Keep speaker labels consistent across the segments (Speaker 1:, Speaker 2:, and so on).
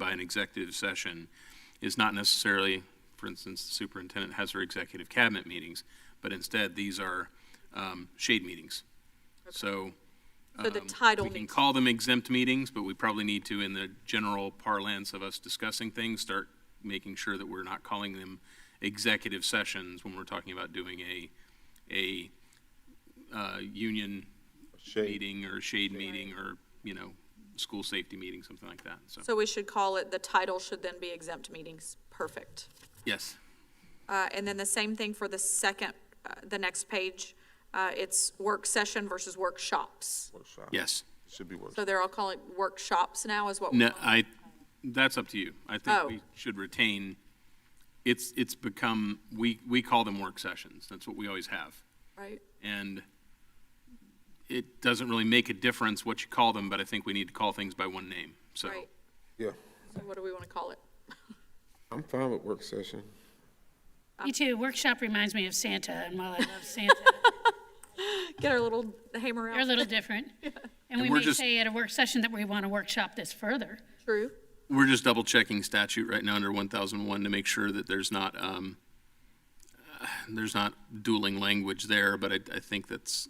Speaker 1: by an executive session is not necessarily, for instance, the superintendent has her executive cabinet meetings, but instead, these are um, shade meetings. So.
Speaker 2: So the
Speaker 1: um,
Speaker 2: title
Speaker 1: We can
Speaker 2: needs-
Speaker 1: call them exempt meetings, but we probably need to, in the general parlance of us discussing things, start making sure that we're not calling them executive sessions when we're talking about doing a, a uh, union
Speaker 3: Shade.
Speaker 1: meeting or shade meeting or, you know, school safety meeting, something like that, so,
Speaker 2: So we should call it, the title should then be exempt meetings. Perfect.
Speaker 1: yes.
Speaker 2: Uh, and then the same thing for the second, uh, the next page. Uh, it's work session versus workshops.
Speaker 3: Workshop.
Speaker 1: Yes.
Speaker 3: Should be workshop.
Speaker 2: So they're all calling it workshops now is what? we
Speaker 1: No,
Speaker 2: want.
Speaker 1: I, that's up to you. I think
Speaker 2: Oh.
Speaker 1: we should retain, it's, it's become, we, we call them work sessions. That's what we always have.
Speaker 2: Right?
Speaker 1: And it doesn't really make a difference what you call them, but I think we need to call things by one name, so.
Speaker 2: Right.
Speaker 3: Yeah,
Speaker 2: So what do we want to call it?
Speaker 3: I'm fine with work session.
Speaker 4: Me too. Workshop reminds me of Santa, and while I love Santa,
Speaker 2: Get our little hammer
Speaker 4: they're a
Speaker 2: out.
Speaker 4: little different. And we
Speaker 1: we're
Speaker 4: may
Speaker 1: just-
Speaker 4: say at a work session that we want to workshop this further.
Speaker 2: True.
Speaker 1: We're just double checking statute right now under one thousand one to make sure that there's not, um, uh, there's not dueling language there, but I, I think that's,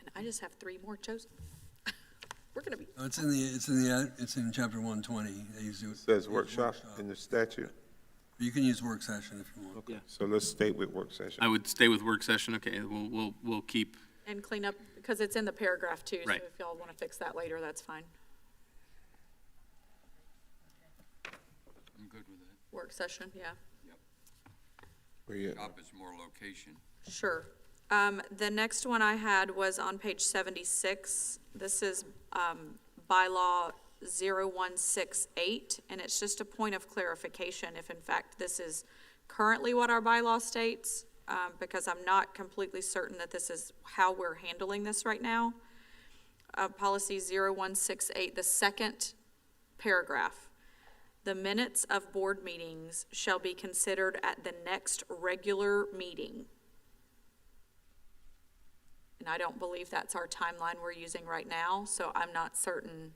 Speaker 2: And I just have three more chosen. We're going to be,
Speaker 5: Oh, It's in the, it's in the, ad- it's in chapter one twenty, they use it.
Speaker 3: Says workshop in the statute,
Speaker 5: You can use work session if you want.
Speaker 3: so let's stay with work session.
Speaker 1: I would stay with work session, okay, we'll, we'll, we'll keep,
Speaker 2: and clean up, because it's in the paragraph too.
Speaker 1: Right.
Speaker 2: So if y'all want to fix that later, that's fine.
Speaker 6: I'm good with it.
Speaker 2: Work session, yeah.
Speaker 3: Where you at?
Speaker 6: Job is more location.
Speaker 2: Sure. Um, the next one I had was on page seventy-six. This is, um, bylaw 0168, and it's just a point of clarification if in fact this is currently what our bylaw states, um, because I'm not completely certain that this is how we're handling this right now. Uh, policy 0168, the second paragraph. The minutes of board meetings shall be considered at the next regular meeting. And I don't believe that's our timeline we're using right now, so I'm not certain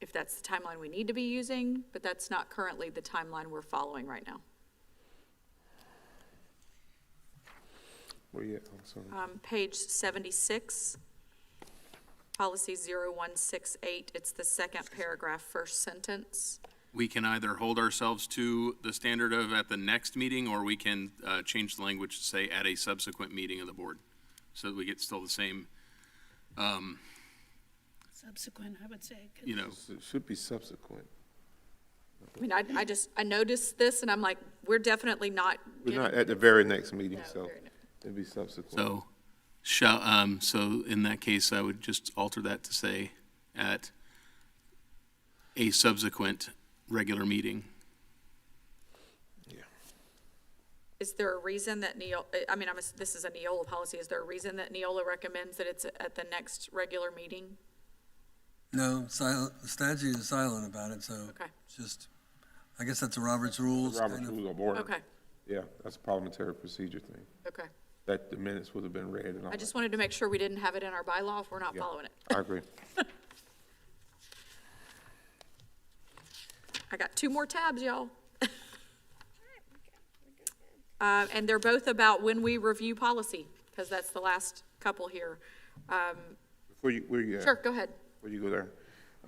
Speaker 2: if that's the timeline we need to be using, but that's not currently the timeline we're following right now.
Speaker 3: Where you at? I'm sorry.
Speaker 2: Um, page seventy-six, policy 0168. it's the second paragraph, first sentence.
Speaker 1: we can either hold ourselves to the standard of at the next meeting, or we can uh, change the language to say at a subsequent meeting of the board, so that we get still the same,
Speaker 4: Subsequent, I would say. 'cause
Speaker 1: you know,
Speaker 3: It Should be subsequent.
Speaker 2: I mean, I, I just, I noticed this and I'm like, we're definitely not.
Speaker 3: We're not
Speaker 2: getting-
Speaker 3: at the very next meeting,
Speaker 2: No,
Speaker 3: so
Speaker 2: very next.
Speaker 3: it'd be subsequent.
Speaker 1: so, shall, um, so in that case, I would just alter that to say at a subsequent regular meeting.
Speaker 2: Is there a reason that Neola, I mean, I'm, ass- this is a Neola policy, is there a reason that Neola recommends that it's at the next regular meeting?
Speaker 5: No, silent, the statute is silent about it, so
Speaker 2: Okay.
Speaker 5: it's just, I guess that's a Robert's rules. kind
Speaker 3: Robert's
Speaker 5: of.
Speaker 3: rules of order.
Speaker 2: Okay,
Speaker 3: Yeah, that's a parliamentary procedure thing.
Speaker 2: okay.
Speaker 3: That the minutes would have been read and all
Speaker 2: I
Speaker 3: that.
Speaker 2: just wanted to make sure we didn't have it in our bylaw if we're not following it.
Speaker 3: I agree.
Speaker 2: I got two more tabs, y'all. Uh, and they're both about when we review policy, because that's the last couple here.
Speaker 3: Before you, where you at?
Speaker 2: Sure, go ahead.
Speaker 3: Where you go there?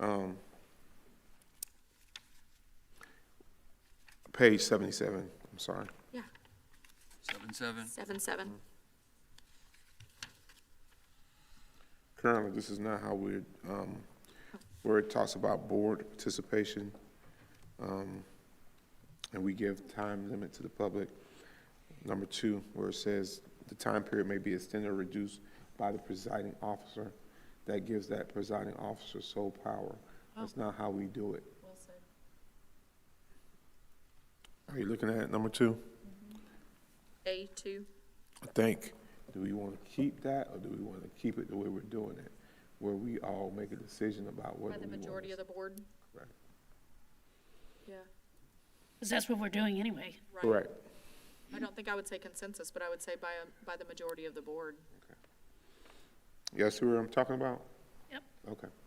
Speaker 3: Um, Page seventy-seven, I'm sorry.
Speaker 2: Yeah,
Speaker 6: Seven, seven.
Speaker 2: seven, seven.
Speaker 3: Currently, this is not how we're, um, where it talks about board participation. um, And we give time limit to the public. Number two, where it says the time period may be extended or reduced by the presiding officer. That gives that presiding officer sole power. That's not how we do it. Are you looking at number two?
Speaker 2: A two.
Speaker 3: I think, do we want to keep that, or do we want to keep it the way we're doing it? Where we all make a decision about whether
Speaker 2: By
Speaker 3: we
Speaker 2: the
Speaker 3: want.
Speaker 2: majority of the board?
Speaker 3: Right.
Speaker 2: Yeah,
Speaker 4: 'cause that's what we're doing anyway.
Speaker 2: right.
Speaker 3: Correct.
Speaker 2: I don't think I would say consensus, but I would say by, a- by the majority of the board.
Speaker 3: Yes, who I'm talking about?
Speaker 4: Yep.
Speaker 3: Okay.